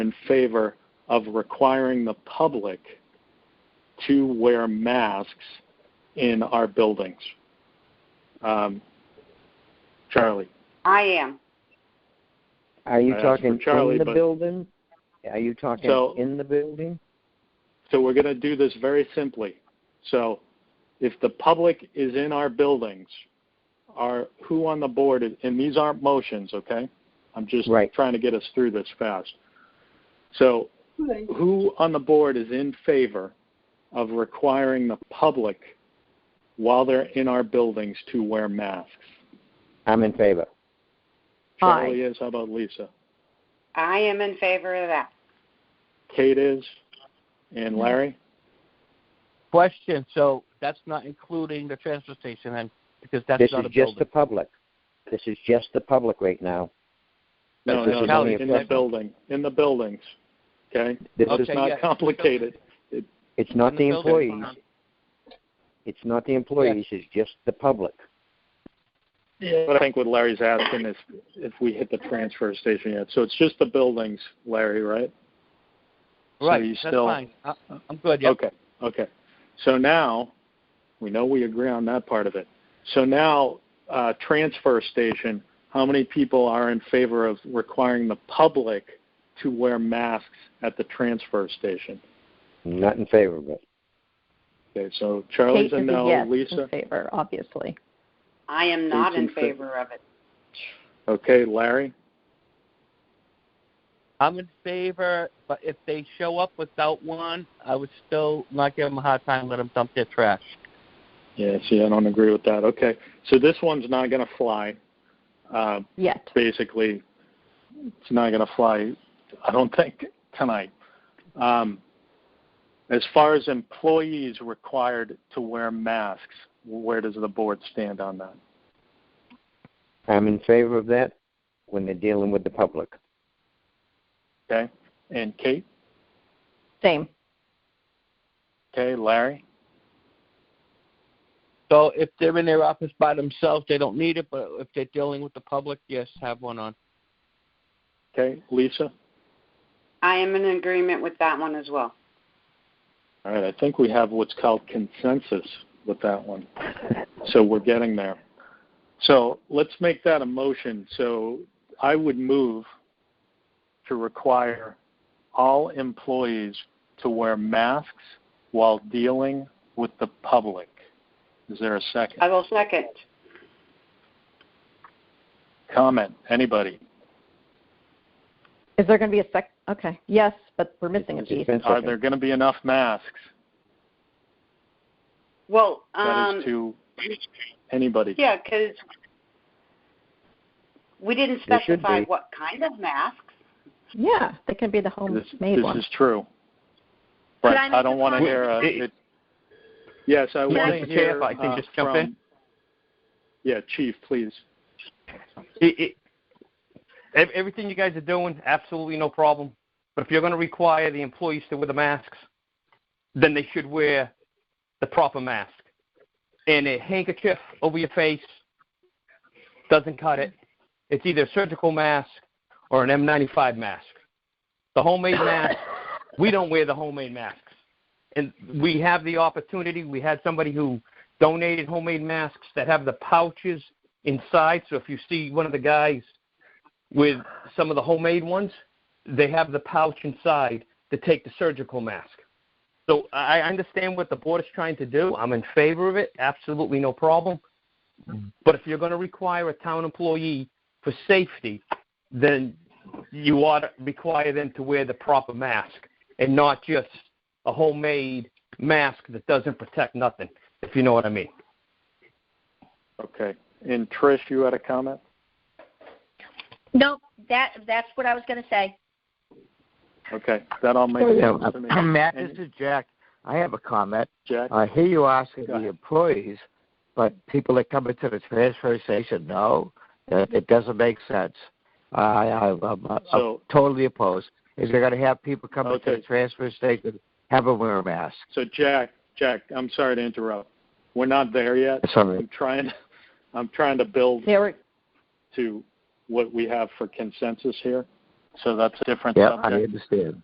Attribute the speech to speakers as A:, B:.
A: in favor of requiring the public to wear masks in our buildings. Um, Charlie,
B: I am.
C: Are you
A: I asked
C: talking
A: for Charlie,
C: in the
A: but-
C: building? Are you talking
A: So-
C: in the building?
A: so we're going to do this very simply. So if the public is in our buildings, are who on the board, is- and these aren't motions, okay? I'm just
C: Right.
A: trying to get us through this fast. So who on the board is in favor of requiring the public while they're in our buildings to wear masks?
C: I'm in favor.
D: Aye.
A: Charlie is, how about Lisa?
B: I am in favor of that.
A: Kate is, and Larry?
E: Question, so that's not including the transfer station then, because that's
C: This
E: not
C: is
E: a
C: just
E: building.
C: the public. This is just the public right now.
A: No,
C: But this
A: no,
C: is
A: no,
C: only a
A: in the
C: question.
A: building, in the buildings, okay?
C: This
A: It's
C: is,
E: Okay, yeah.
A: not complicated.
C: it's not
E: In
C: the
E: building.
C: employees, it's not the employees, it's just the public.
A: But I think what Larry's asking is if we hit the transfer station yet. So it's just the buildings, Larry, right? So you
E: Right, that's
A: still-
E: fine. I- I'm good, yeah.
A: Okay, okay. So now, we know we agree on that part of it. So now, uh, transfer station, how many people are in favor of requiring the public to wear masks at the transfer station?
C: I'm Not in favor of it.
A: Okay, so Charlie's
D: Kate
A: a
D: is
A: no,
D: yes
A: Lisa?
D: in favor, obviously.
B: I am not
A: Who's in
B: in
A: fa-
B: favor of it.
A: Okay, Larry?
E: I'm in favor, but if they show up without one, I would still not give them a hard time, let them dump their trash.
A: Yeah, see, I don't agree with that. Okay, so this one's not going to fly. Uh,
D: Yet.
A: basically, it's not going to fly, I don't think, tonight. Um, as far as employees required to wear masks, where does the board stand on that?
C: I'm in favor of that when they're dealing with the public.
A: Okay? And Kate?
D: Same.
A: Okay, Larry?
E: So if they're in their office by themselves, they don't need it, but if they're dealing with the public, yes, have one on.
A: Okay, Lisa?
B: I am in agreement with that one as well.
A: All right, I think we have what's called consensus with that one. So we're getting there. So let's make that a motion. So I would move to require all employees to wear masks while dealing with the public. Is there a second?
B: I will second.
A: Comment, anybody?
D: Is there going to be a sec? Okay. Yes, but we're missing a
C: It's just
D: piece.
C: been
A: Are
C: seconded.
A: there going to be enough masks?
B: Well,
A: That is
B: um,
A: to anybody.
B: yeah, because we didn't
C: There should
B: specify
C: be.
B: what kind of masks.
D: Yeah, they can be the
A: This,
D: homemade
A: this
D: one.
A: is true. But
F: Could I
A: I,
F: make a
A: don't want to
F: comment?
A: hear. A,
F: It-
A: it, yes, I
F: Can I-
A: want to
F: Mr.
A: hear.
F: Chair, if I can
A: uh,
F: just jump
A: from,
F: in?
A: Yeah, Chief, please.
F: it, it, ev- everything you guys are doing, absolutely no problem. But if you're going to require the employees to wear the masks, then they should wear the proper mask. And a handkerchief over your face doesn't cut it. It's either a surgical mask or an M95 mask. The homemade mask, we don't wear the homemade masks. And we have the opportunity. We had somebody who donated homemade masks that have the pouches inside. So if you see one of the guys with some of the homemade ones, they have the pouch inside to take the surgical mask. So I I understand what the board is trying to do. I'm in favor of it. Absolutely no problem. But if you're going to require a town employee for safety, then you ought to require them to wear the proper mask and not just a homemade mask that doesn't protect nothing, if you know what I mean.
A: Okay. And Trish, you had a comment.
F: No, that that's what I was going to say.
A: Okay, that all makes sense to me.
G: Oh, Matt,
A: And
G: this is Jack. I have a comment. Uh,
A: Jack.
G: I hear you asking
A: Go ahead.
G: the employees, but people that come into the transfer station, no, it, it doesn't make sense. I, I, I'm, I'm
A: So-
G: totally opposed. If you're going to have people come into
A: Okay.
G: the transfer station, have them wear a mask.
A: so Jack, Jack, I'm sorry to interrupt. We're not there yet.
G: Sorry.
A: I'm trying. I'm trying to build
D: They were
A: to what we have for consensus here.
H: So that's a different
A: Yeah, I
H: subject.
A: understand.